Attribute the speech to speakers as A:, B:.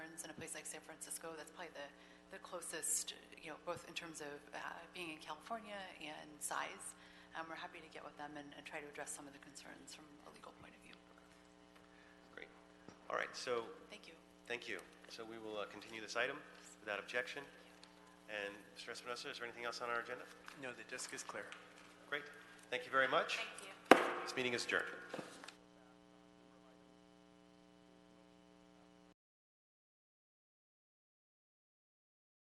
A: cities like San Francisco, that's probably the, the closest, you know, both in terms of uh, being in California and size. Um, We're happy to get with them and and try to address some of the concerns from a legal point of view.
B: Great. All right, so,
A: Thank you.
B: thank you. So we will uh, continue this item without objection. And Mr. Espinosa, is there anything else on our agenda?
C: No, the desk is clear.
B: Great. Thank you very much.
D: Thank you.
B: This meeting is adjourned.